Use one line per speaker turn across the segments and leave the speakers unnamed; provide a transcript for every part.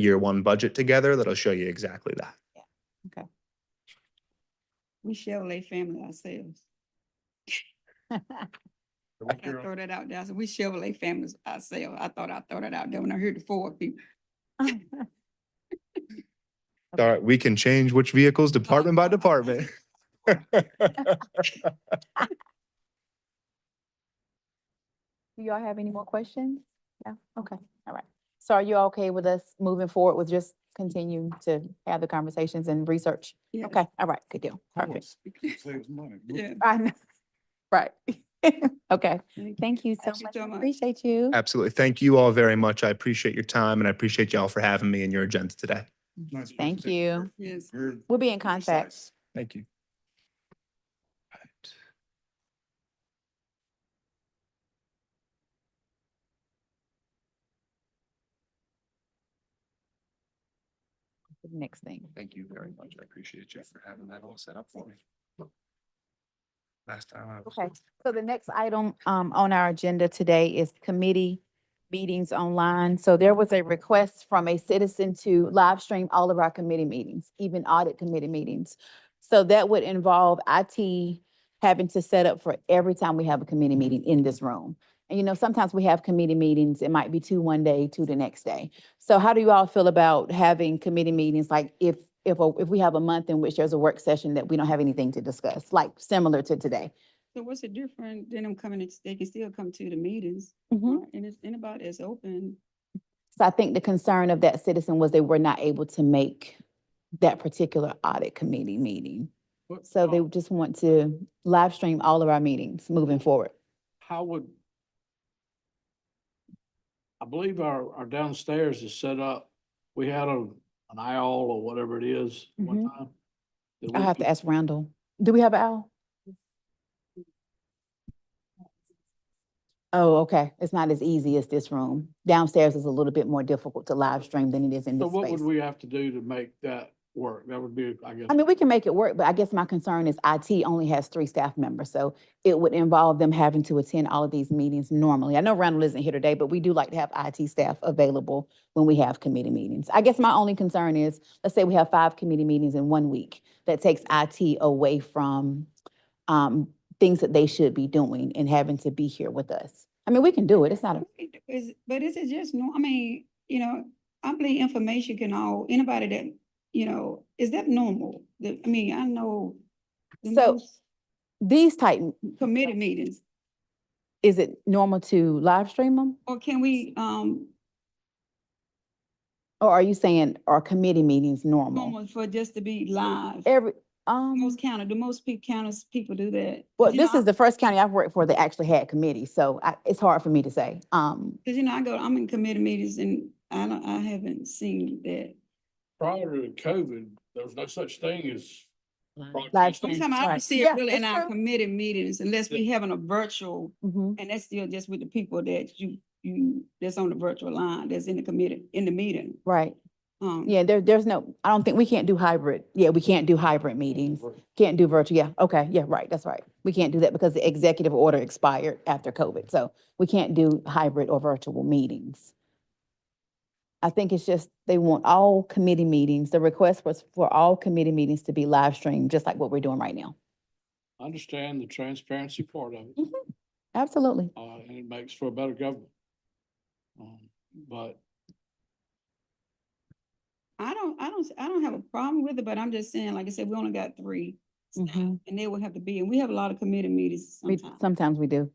year one budget together that'll show you exactly that.
We Chevrolet family ourselves. I throw that out there. I said, we Chevrolet families ourselves. I thought I throw that out there when I heard the four people.
All right, we can change which vehicles department by department.
Do y'all have any more questions? No? Okay, all right. So are you okay with us moving forward with just continuing to have the conversations and research?
Yeah.
Okay, all right, good deal. Perfect.
Saves money.
Yeah.
I know. Right. Okay, thank you so
Thank you
much.
so
I
much.
Appreciate you.
Absolutely. Thank you all very much. I appreciate your time and I appreciate y'all for having me and your agenda today.
Nice
Thank
presentation.
you.
Yes.
Very
We'll be in contact.
precise.
Thank you.
for the Next thing.
Thank you very much. I appreciate you for having that all set up for me. Last time I was.
Okay, so the next item um on our agenda today is committee meetings online. So there was a request from a citizen to live stream all of our committee meetings, even audit committee meetings. So that would involve IT having to set up for every time we have a committee meeting in this room. And you know, sometimes we have committee meetings, it might be two one day, two the next day. So how do you all feel about having committee meetings, like if if a- if we have a month in which there's a work session that we don't have anything to discuss, like similar to today?
So what's the difference? Then I'm coming, it's- they can still come to the meetings.
Mm-hmm.
right? And it's anybody that's open.
So I think the concern of that citizen was they were not able to make that particular audit committee meeting.
But
So they
how-
just want to live stream all of our meetings moving forward.
How would? I believe our, our downstairs is set up. We had a, an aisle or whatever it is one
I
time. that we
Mm-hmm. have to
could-
ask Randall, do we have an owl? Oh, okay. It's not as easy as this room. Downstairs is a little bit more difficult to live stream than it is in
So
this
what would
space.
we have to do to make that work? That would be, I guess.
I mean, we can make it work, but I guess my concern is IT only has three staff members, so it would involve them having to attend all of these meetings normally. I know Randall isn't here today, but we do like to have IT staff available when we have committee meetings. I guess my only concern is, let's say we have five committee meetings in one week. That takes IT away from um things that they should be doing and having to be here with us. I mean, we can do it. It's not a,
It is- But is it just, no, I mean, you know, I believe information can all, anybody that, you know, is that normal? The- I mean, I know. the
So-
most
these type,
Committee meetings,
is it normal to live stream them?
or can we, um,
Or are you saying, are committee meetings normal?
normal for just to be live?
Every, um.
Most county, the most people counties, people do that.
Well,
You
this
know,
is the first county I've worked for that actually had committees, so I, it's hard for me to say. Um,
Cause you know, I go, I'm in committee meetings and I don't, I haven't seen that.
Prior to COVID, there was no such thing as.
Live
broadcast.
stream.
Sometimes I
Right.
don't see
Yeah,
it really in
that's
our
true.
committee meetings unless we having a virtual,
mhm.
and that's still just with the people that you, you, that's on the virtual line, that's in the committee, in the meeting.
right.
Um,
Yeah, there, there's no, I don't think, we can't do hybrid. Yeah, we can't do hybrid meetings. Can't do virtual. Yeah, okay, yeah, right, that's right. We can't do that because the executive order expired after COVID, so we can't do hybrid or virtual meetings. I think it's just, they want all committee meetings, the request was for all committee meetings to be live streamed, just like what we're doing right now.
I Understand the transparency part of it,
Absolutely.
uh, and it makes for a better government. Um, But
I don't, I don't, I don't have a problem with it, but I'm just saying, like I said, we only got three. staff,
Mhm.
And they will have to be, and we have a lot of committee meetings
We,
sometimes.
sometimes we do.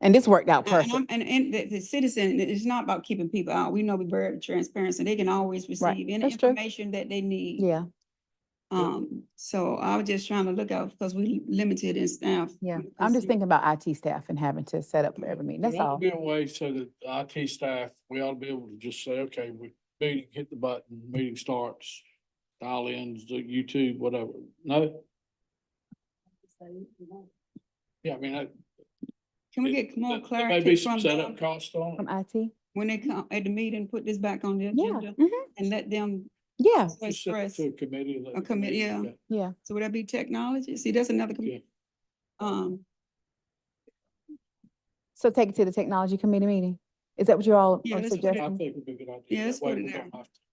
And this worked out
And- and I'm-
perfect.
And, and the, the citizen, it- it's not about keeping people out. We know we're very transparent, so they can always receive any
That's true.
information that they need.
Yeah,
Um, so I was just trying to look out, because we limited in staff.
yeah.
when it
I'm
comes
just
to-
thinking about IT staff and having to set up for every meeting. That's
There ought
all.
to Be a way so that the IT staff, we ought to be able to just say, okay, we, meeting, hit the button, meeting starts, dial in, do YouTube, whatever, no? Yeah, I mean, that.
Can we get more
that- there may be
clarity
some
from
Setup
them
cost on
From
it.
IT?
when they come at the meeting, put this back on the
Yeah,
agenda
mhm,
and let them,
yeah,
Like
Just send it
stress.
To a committee. and let
A
the
committee, yeah.
do that.
yeah.
so would that be technology? See, that's another, com-
Yeah.
um,
So take it to the technology committee meeting. Is that what you all
Yeah,
are
that's what I-
I
suggesting?
think it'd be a good idea.
Yeah,
That
let's
way
put it
we
there.
don't have to